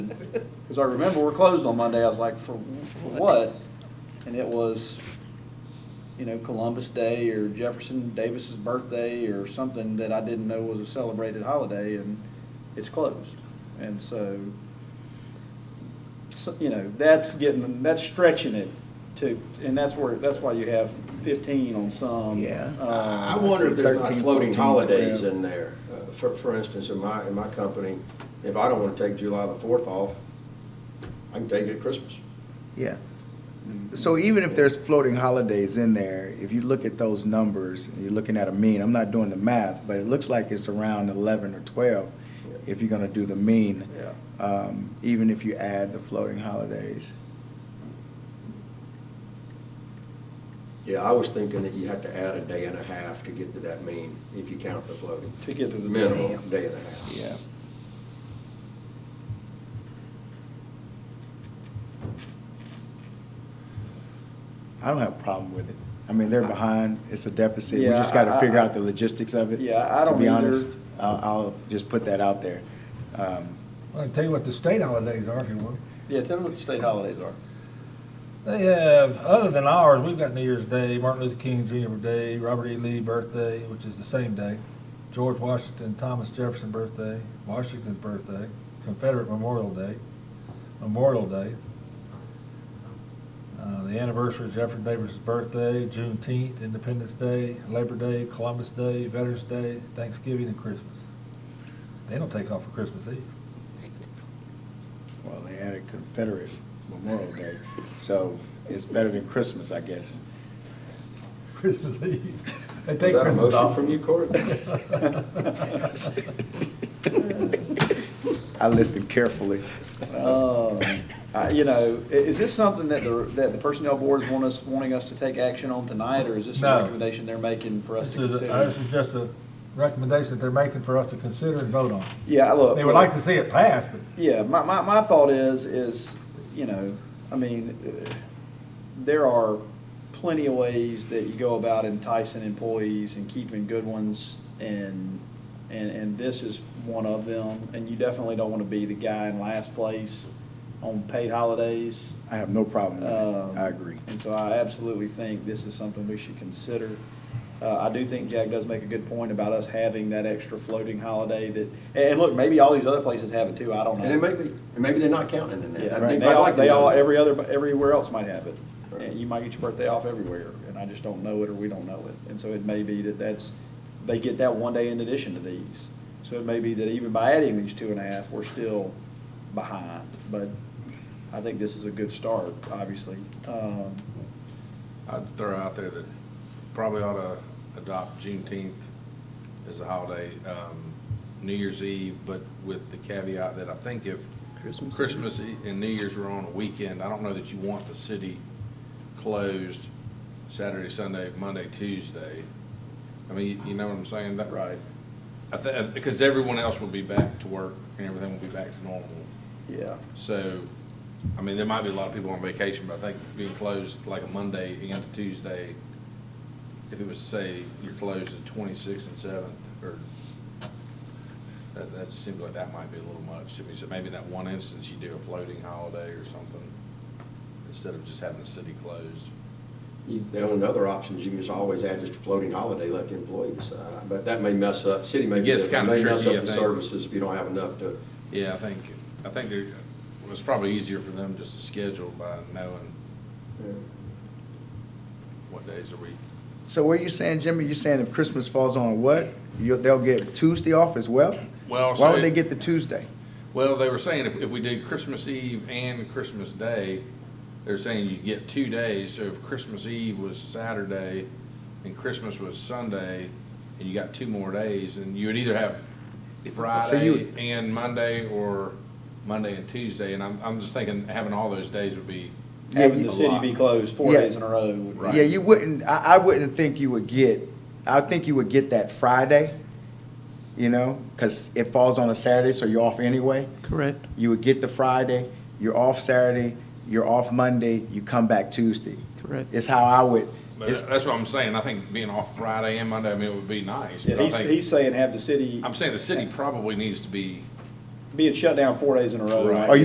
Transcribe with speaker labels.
Speaker 1: Because I remember we're closed on Monday, I was like, for, for what? And it was, you know, Columbus Day or Jefferson Davis's birthday or something that I didn't know was a celebrated holiday and it's closed. And so, so, you know, that's getting, that's stretching it to, and that's where, that's why you have fifteen on some.
Speaker 2: Yeah.
Speaker 1: um,
Speaker 3: I wonder if there's not
Speaker 2: 13,
Speaker 3: floating
Speaker 2: 14,
Speaker 3: holidays
Speaker 2: 12.
Speaker 3: in there. Uh, For, for instance, in my, in my company, if I don't want to take July the fourth off, I can take it at Christmas.
Speaker 2: Yeah. So even if there's floating holidays in there, if you look at those numbers, and you're looking at a mean, I'm not doing the math, but it looks like it's around eleven or twelve if you're gonna do the mean,
Speaker 1: Yeah.
Speaker 2: um, even if you add the floating holidays.
Speaker 3: Yeah, I was thinking that you had to add a day and a half to get to that mean, if you count the floating.
Speaker 1: To get to the-
Speaker 3: Minimum, day and a half.
Speaker 2: Yeah. I don't have a problem with it. I mean, they're behind, it's a deficit, we
Speaker 1: Yeah,
Speaker 2: just gotta
Speaker 1: I-
Speaker 2: figure
Speaker 1: I-
Speaker 2: out the logistics of it.
Speaker 1: Yeah, I don't
Speaker 2: To be
Speaker 1: either.
Speaker 2: honest, I'll, I'll just put that out there. Um,
Speaker 4: I'll tell you what the state holidays are if you want.
Speaker 1: Yeah, tell me what the state holidays are.
Speaker 4: They have, other than ours, we've got New Year's Day, Martin Luther King Jr. Day, Robert E. Lee birthday, which is the same day, George Washington, Thomas Jefferson birthday, Washington's birthday, Confederate Memorial Day, Memorial Day, uh, the anniversary of Jefferson Davis' birthday, Juneteenth, Independence Day, Labor Day, Columbus Day, Veterans Day, Thanksgiving, and Christmas. They don't take off for Christmas Eve.
Speaker 2: Well, they had a Confederate Memorial Day, so it's better than Christmas, I guess.
Speaker 4: Christmas Eve. They
Speaker 3: Was
Speaker 4: take
Speaker 3: that a
Speaker 4: Christmas
Speaker 3: motion
Speaker 4: off.
Speaker 3: from you, Cory?
Speaker 2: I listened carefully. Oh.
Speaker 1: Um, I- You know, i- is this something that the, that the personnel board is want us, wanting us to take action on tonight, or is this a
Speaker 4: No.
Speaker 1: recommendation they're making for us to
Speaker 4: This is, a-
Speaker 1: consider?
Speaker 4: this is just a recommendation that they're making for us to consider and vote on.
Speaker 1: Yeah, I look.
Speaker 4: They would like to see it passed, but
Speaker 1: Yeah, my, my, my thought is, is, you know, I mean, uh, there are plenty of ways that you go about enticing employees and keeping good ones, and, and, and this is one of them, and you definitely don't want to be the guy in last place on paid holidays.
Speaker 2: I have no problem with
Speaker 1: Um,
Speaker 2: it. I agree.
Speaker 1: And so I absolutely think this is something we should consider. Uh, I do think Jack does make a good point about us having that extra floating holiday that, and, and look, maybe all these other places have it too, I don't know.
Speaker 3: And it may be, and maybe they're not counting in that.
Speaker 1: Yeah,
Speaker 3: I
Speaker 1: right.
Speaker 3: think-
Speaker 1: They
Speaker 3: I'd
Speaker 1: all,
Speaker 3: like to
Speaker 1: they
Speaker 3: know
Speaker 1: all,
Speaker 3: that.
Speaker 1: every other, everywhere else might have it.
Speaker 3: Right.
Speaker 1: And you might get your birthday off everywhere, and I just don't know it, or we don't know it. And so it may be that that's, they get that one day in addition to these. So it may be that even by adding these two and a half, we're still behind. But I think this is a good start, obviously. Um,
Speaker 5: I'd throw out there that probably ought to adopt Juneteenth as a holiday, um, New Year's Eve, but with the caveat that I think if
Speaker 1: Christmas.
Speaker 5: Christmas E- and New Year's were on a weekend, I don't know that you want the city closed Saturday, Sunday, Monday, Tuesday. I mean, you- you know what I'm saying? That-
Speaker 1: Right.
Speaker 5: I think, because everyone else will be back to work and everything will be back to normal.
Speaker 1: Yeah,
Speaker 5: So, I mean, there might be a lot of people on vacation, but I think being closed like a Monday into Tuesday, if it was to say you're closed the twenty-sixth and seventh, or, that, that just seems like that might be a little much to me. So maybe in that one instance, you do a floating holiday or something, instead of just having the city closed.
Speaker 3: You- The only other option is you can just always add just a floating holiday, let the employee decide. But that may mess up, city may,
Speaker 5: It
Speaker 3: may
Speaker 5: gets
Speaker 3: mess up
Speaker 5: kinda tricky, I
Speaker 3: the
Speaker 5: think.
Speaker 3: services if you don't have enough to.
Speaker 5: Yeah, I think, I think there, well, it's probably easier for them just to schedule by knowing what days a week.
Speaker 2: So what are you saying, Jimmy? You're saying if Christmas falls on what? you they'll get Tuesday off as well?
Speaker 5: Well,
Speaker 2: Why
Speaker 5: so-
Speaker 2: would they get the Tuesday?
Speaker 5: Well, they were saying if, if we did Christmas Eve and Christmas Day, they're saying you get two days, so if Christmas Eve was Saturday and Christmas was Sunday, and you got two more days, and you would either have Friday
Speaker 2: would-
Speaker 5: and Monday, or Monday and Tuesday, and I'm, I'm just thinking having all those days would be,
Speaker 2: Yeah,
Speaker 1: having
Speaker 2: you-
Speaker 1: the city be closed four
Speaker 2: Yeah.
Speaker 1: days in a row. would be-
Speaker 2: Yeah, you wouldn't, I, I wouldn't think you would get, I would think you would get that Friday, you know, because it falls on a Saturday, so you're off anyway.
Speaker 6: Correct.
Speaker 2: You would get the Friday, you're off Saturday, you're off Monday, you come back Tuesday.
Speaker 6: Correct.
Speaker 2: It's how I would,
Speaker 5: but
Speaker 2: it's,
Speaker 5: that's what I'm saying, I think being off Friday and Monday, I mean, it would be nice,
Speaker 1: Yeah,
Speaker 5: but I
Speaker 1: he's, he's
Speaker 5: think,
Speaker 1: saying have the city
Speaker 5: I'm saying the city probably needs to be
Speaker 1: being shut down four days in a row.
Speaker 5: Right.
Speaker 1: like,
Speaker 2: Are you